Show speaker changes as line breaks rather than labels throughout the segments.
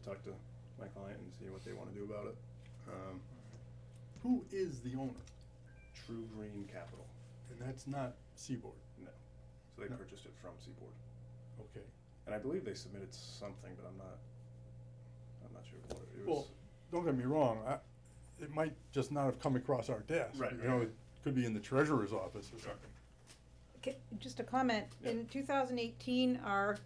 talk to my client and see what they wanna do about it. Um, who is the owner? True Green Capital,
And that's not Seaboard,
so they
No.
purchased it from Seaboard,
okay.
and I believe they submitted something, but I'm not, I'm not sure what it- it was.
Well, Don't get me wrong, I, it might just not have come across our desk.
Right,
You know, it could be in the treasurer's office or something.
Ca- Just a comment,
Yeah.
in two thousand eighteen, our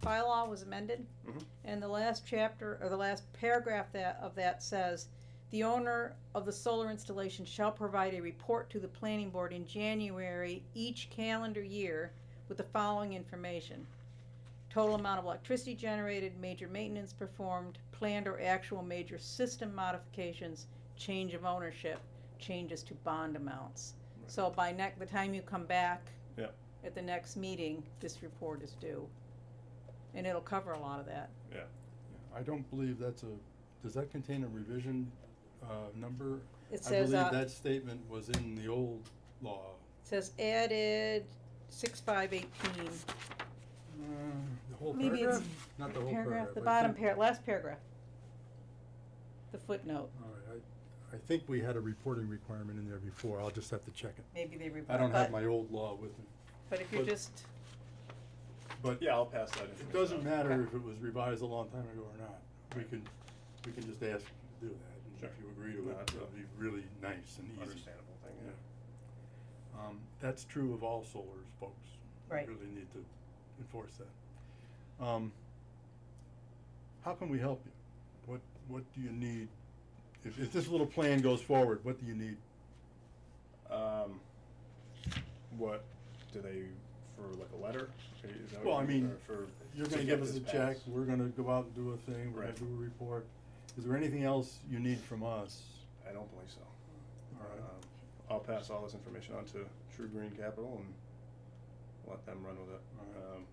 bylaw was amended.
Mhm.
And the last chapter, or the last paragraph that, of that says, the owner of the solar installation shall provide a report to the planning board in January each calendar year with the following information. Total amount of electricity generated, major maintenance performed, planned or actual major system modifications, change of ownership, changes to bond amounts.
Right.
So by neck, the time you come back.
Yeah.
At the next meeting, this report is due. And it'll cover a lot of that.
I don't believe that's a, does that contain a revision, uh, number?
It says,
I believe
uh,
that statement was in the old law.
says added six five eighteen.
The whole
Mm, Maybe it's-
paragraph? Not the whole paragraph.
The
but I
bottom
think-
par, last paragraph. The footnote,
All right, I, I think we had a reporting requirement in there before, I'll just have to check it.
maybe they
I
report,
don't have
but,
my old law with me,
but if you're
but-
just,
but
Yeah, I'll pass that information.
it doesn't
on.
matter if it was revised a long time ago or not, we can, we can just ask to do that, and if
Sure.
you agree to
No,
it,
that's
it'll
a-
be really nice and easy.
Understandable thing, yeah.
Um, that's true of all solars, folks.
Right.
We really need to enforce that. Um, how can we help you? What, what do you need? If, if this little plan goes forward, what do you need?
Um, what do they for like a letter? Is that what
Well, I
you
mean,
or for
You're
to
gonna
get
give us a
this
check,
passed?
we're gonna go out and do a thing, we're gonna
Right.
do a report. Is there anything else you need from us?
I don't believe so.
All right.
Um, I'll pass all this information on to True Green Capital and let them run with it.
All
Um,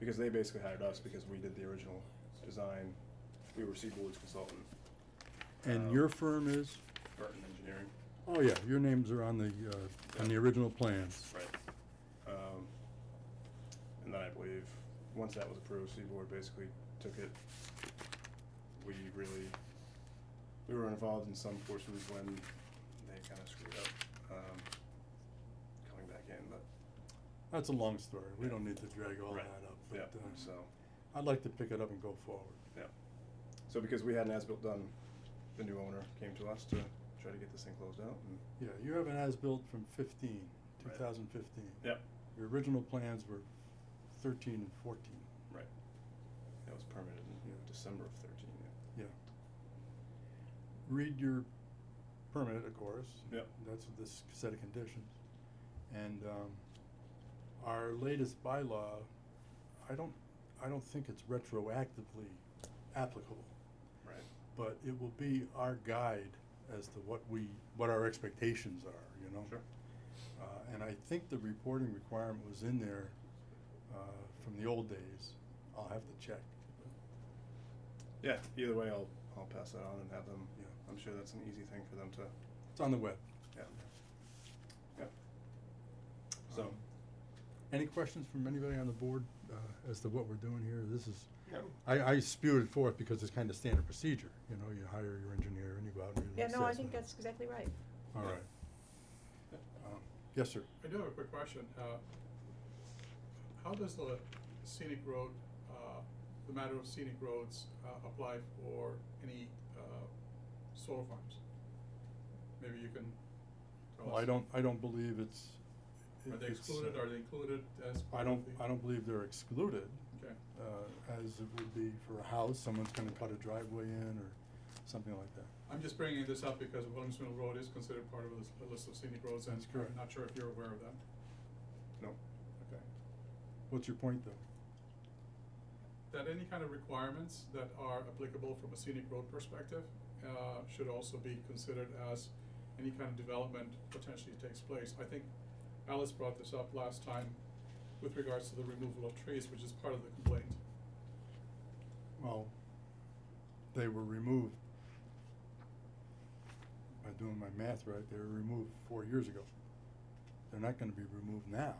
because they basically hired us because we did the original design. We were Seaboard's consultant,
And
um,
your firm is?
Burton Engineering.
Oh, yeah, your names are on the, uh, on the original plans.
Right. Um, and then I believe, once that was approved, Seaboard basically took it. We really, we were involved in some portions when they kinda screwed up, um, coming back in, but,
That's a long story, we
Yeah.
don't need to drag all that
Right.
up,
yeah,
but, uh,
so.
I'd like to pick it up and go forward.
So because we had an as-built done, the new owner came to us to try to get this thing closed out and.
Yeah, you have an as-built from fifteen, two
Right.
thousand fifteen.
Yep.
Your original plans were thirteen and fourteen.
That was permitted in December of thirteen, yeah.
Read your permit, of course.
Yep.
That's this set of conditions. And, um, our latest bylaw, I don't, I don't think it's retroactively applicable.
Right.
But it will be our guide as to what we, what our expectations are, you know?
Sure.
Uh, and I think the reporting requirement was in there, uh, from the old days. I'll have to check.
Yeah, either way, I'll, I'll pass that on and have them,
Yeah.
I'm sure that's an easy thing for them to,
It's on the web.
yeah.
So, any questions from anybody on the board uh, as to what we're doing here? This is,
Yeah.
I, I spewed it forth because it's kind of standard procedure. You know, you hire your engineer and you go out and do
yeah,
an
no, I think
assessment.
that's exactly right.
All right. Um, Yes, sir.
I do have a quick question. Uh, How does the scenic road, uh, the matter of scenic roads, uh, apply for any uh, solar farms? Maybe you can tell us.
Well, I don't, I don't believe it's.
Are they
it's,
excluded,
uh,
are they included as
I
part
don't,
of the?
I don't believe they're excluded.
Okay.
uh, As it would be for a house, someone's gonna cut a driveway in or something like that.
I'm just bringing this up because Williams Mill Road is considered part of this- the list of scenic roads, and
That's correct.
I'm not sure if you're aware of that.
No.
Okay.
What's your point, though?
that any kind of requirements that are applicable from a scenic road perspective uh, should also be considered as any kind of development potentially takes place. I think Alice brought this up last time with regards to the removal of trees, which is part of the complaint.
Well, they were removed. Am I doing my math right? They were removed four years ago. They're not gonna be removed now.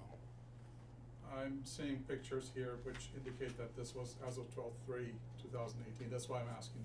I'm seeing pictures here which indicate that this was as of twelve three, two thousand eighteen, that's why I'm asking the